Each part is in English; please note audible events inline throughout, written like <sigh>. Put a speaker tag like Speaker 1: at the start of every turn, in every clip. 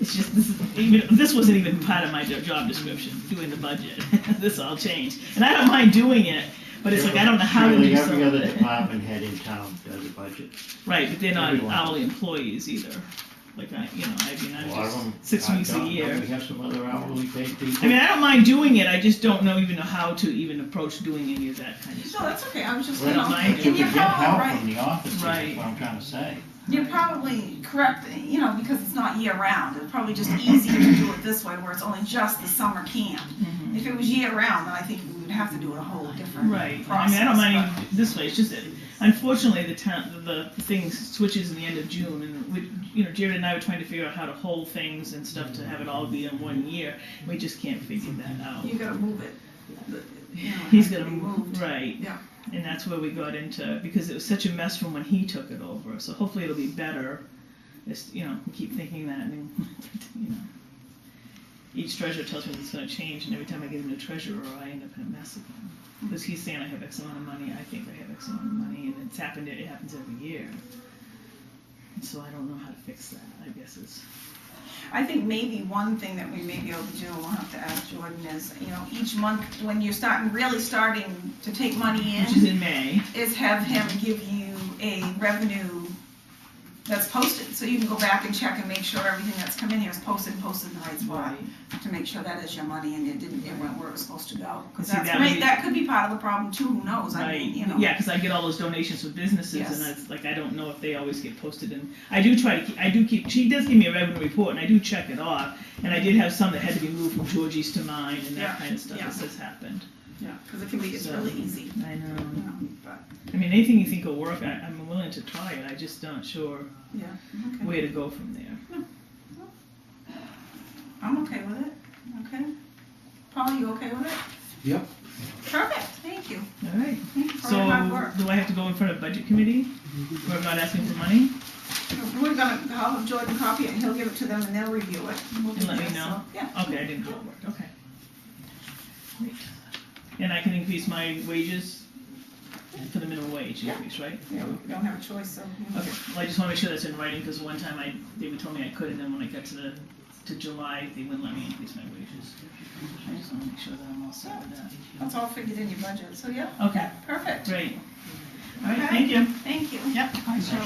Speaker 1: It's just this, even, this wasn't even part of my jo- job description, doing the budget. <laughs> this all changed, and I don't mind doing it, but it's like I don't know how to
Speaker 2: Surely
Speaker 1: do
Speaker 2: Every other
Speaker 1: something.
Speaker 2: department head in town does a budget.
Speaker 1: Right, but they're not
Speaker 2: everyone.
Speaker 1: hourly employees either. Like I, you know, I mean,
Speaker 2: A
Speaker 1: I'm
Speaker 2: lot of
Speaker 1: just
Speaker 2: them.
Speaker 1: six
Speaker 2: are
Speaker 1: weeks a
Speaker 2: done.
Speaker 1: year.
Speaker 2: Don't We have some other hourly paid
Speaker 1: I mean,
Speaker 2: people.
Speaker 1: I don't mind doing it. I just don't know even know how to even approach doing any of that kind of
Speaker 3: No,
Speaker 1: stuff.
Speaker 3: that's okay, I was just, you
Speaker 2: Well,
Speaker 3: know,
Speaker 1: Right.
Speaker 2: But you could
Speaker 3: and you're
Speaker 2: get help from
Speaker 3: probably right,
Speaker 2: the office,
Speaker 1: Right.
Speaker 2: that's what I'm trying to say.
Speaker 3: you're probably correct, you know, because it's not year round, it's probably just easier to do it this way, where it's only just the summer camp. If it was year round, then I think we would have to do it a whole different
Speaker 1: Mm-hmm. Right. I
Speaker 3: process.
Speaker 1: mean, I don't mind
Speaker 3: but-
Speaker 1: even this way. It's just that unfortunately the town the, the thing switches in the end of June, and we, you know, Jared and I were trying to figure out how to hold things and stuff to have it all be in one year. We just can't figure that out.
Speaker 3: You gotta move it. The- you know, it
Speaker 1: He's
Speaker 3: has to
Speaker 1: gonna
Speaker 3: be moved.
Speaker 1: right.
Speaker 3: Yeah.
Speaker 1: And that's where we got into because it was such a mess from when he took it over. So hopefully it'll be better. It's, you know, we keep thinking that, and <laughs> you know, each treasurer tells me it's going to change, and every time I get a new treasurer, I end up in a mess again. Because he's saying I have X amount of money, I think I have X amount of money, and it's happened. It happens every year. And so I don't know how to fix that. I guess it's
Speaker 3: I think maybe one thing that we may be able to do, and we'll have to ask Jordan, is, you know, each month, when you're starting, really starting to take money
Speaker 1: which is
Speaker 3: in,
Speaker 1: in May.
Speaker 3: is have him give you a revenue that's posted, so you can go back and check and make sure everything that's come in here is posted, posted in the right spot, to make sure that is your money and it didn't, it went where it was supposed to go. Because
Speaker 1: See,
Speaker 3: that's,
Speaker 1: that would
Speaker 3: may-
Speaker 1: be-
Speaker 3: that could be part of the problem too, who knows, I
Speaker 1: Right.
Speaker 3: mean, you know.
Speaker 1: Yeah, because I get all those donations from businesses,
Speaker 3: Yes.
Speaker 1: and it's like I don't know if they always get posted. And I do try to, keep, I do keep. She does give me a revenue report, and I do check it off. And I did have some that had to be moved from Georgie's to mine, and that
Speaker 3: Yeah,
Speaker 1: kind of stuff.
Speaker 3: yeah.
Speaker 1: This has happened.
Speaker 3: Yeah, because it can be, it's really easy,
Speaker 1: I know.
Speaker 3: you know, but,
Speaker 1: I mean, anything you think will work, I, I'm willing to try it. I just not sure
Speaker 3: yeah, okay.
Speaker 1: where to go from there.
Speaker 3: I'm okay with it, okay? Paul, you okay with it?
Speaker 4: Yep.
Speaker 3: Perfect, thank you.
Speaker 1: All right.
Speaker 3: Thank you for
Speaker 1: So
Speaker 3: your hard work.
Speaker 1: do I have to go in front of budget committee? Where I'm not asking for money,
Speaker 3: We're gonna, I'll have Jordan copy it, and he'll give it to them, and they'll review it. We'll
Speaker 1: and let me
Speaker 3: do
Speaker 1: know.
Speaker 3: so, Yeah.
Speaker 1: Okay, I didn't know it worked. Okay. Great. And I can increase my wages for the minimum wage
Speaker 3: Yeah.
Speaker 1: increase, right?
Speaker 3: Yeah, we don't have a choice, so. you know.
Speaker 1: Okay. Well, I just want to make sure that's in writing because one time I they were told me I could, and then when I got to the to July, they wouldn't let me increase my wages. I just want to make sure that I'm all set with that.
Speaker 3: That's all figured in your budget, so yeah,
Speaker 1: Okay.
Speaker 3: perfect,
Speaker 1: Great. All right.
Speaker 3: Okay.
Speaker 1: Thank you.
Speaker 3: thank you.
Speaker 1: Yep.
Speaker 3: So,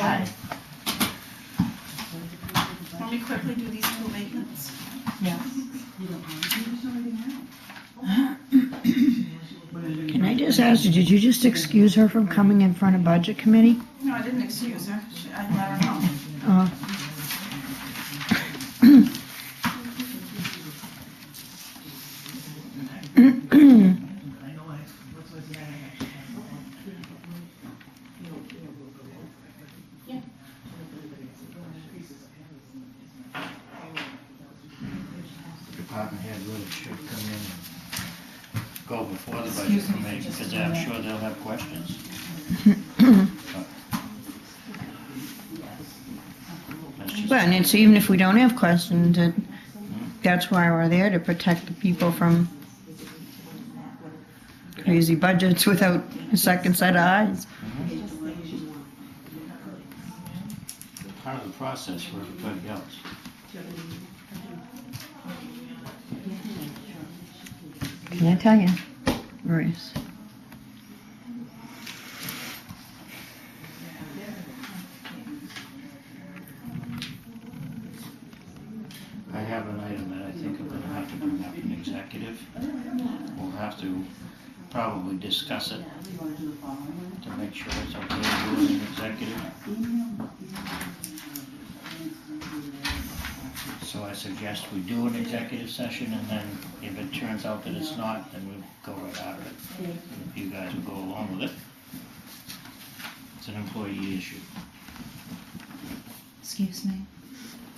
Speaker 3: Let me quickly do these two abatements.
Speaker 5: Yeah.
Speaker 6: Can I just ask you, did you just excuse her from coming in front of budget committee?
Speaker 3: No, I didn't excuse her, She- I let her know.
Speaker 6: Uh,
Speaker 2: Department head really should come in and go before the budget
Speaker 5: Excuse me for
Speaker 2: committee,
Speaker 5: just
Speaker 2: because
Speaker 5: a
Speaker 2: I'm
Speaker 5: minute.
Speaker 2: sure they'll have
Speaker 5: <coughs>
Speaker 2: questions. But- That's just-
Speaker 6: Well, and it's even if we don't have questions, it, that's why we're there, to protect the people from crazy budgets without a second set of eyes.
Speaker 2: part of the process for everybody else.
Speaker 6: Can I tell you, Maurice?
Speaker 2: I have an item that I think I'm gonna have to bring up in executive. We'll have to probably discuss it to make sure it's okay to do it in executive. So I suggest we do an executive session and then if it turns out that it's not, then we'll go right out of it. If You guys will go along with it. It's an employee issue.
Speaker 5: Excuse me.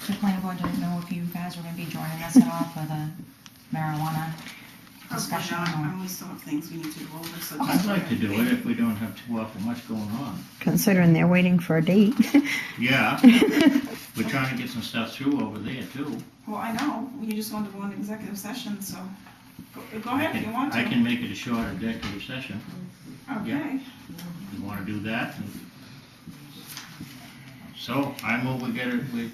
Speaker 5: The planning board didn't know if you guys were gonna be joining us at all for the marijuana
Speaker 3: Probably
Speaker 5: discussion
Speaker 3: not,
Speaker 5: or.
Speaker 3: and we still have things we need Oh, to go over, so.
Speaker 2: I'd like to do it if we don't have too often much going on.
Speaker 6: Considering they're waiting for a date. <laughs>
Speaker 2: Yeah, we're trying to get some stuff through over there too.
Speaker 3: Well, I know, you just wanted one executive session, so go- go ahead if you want to.
Speaker 2: I can make it a short executive session.
Speaker 3: Okay.
Speaker 2: You wanna do that? So I move we get it, we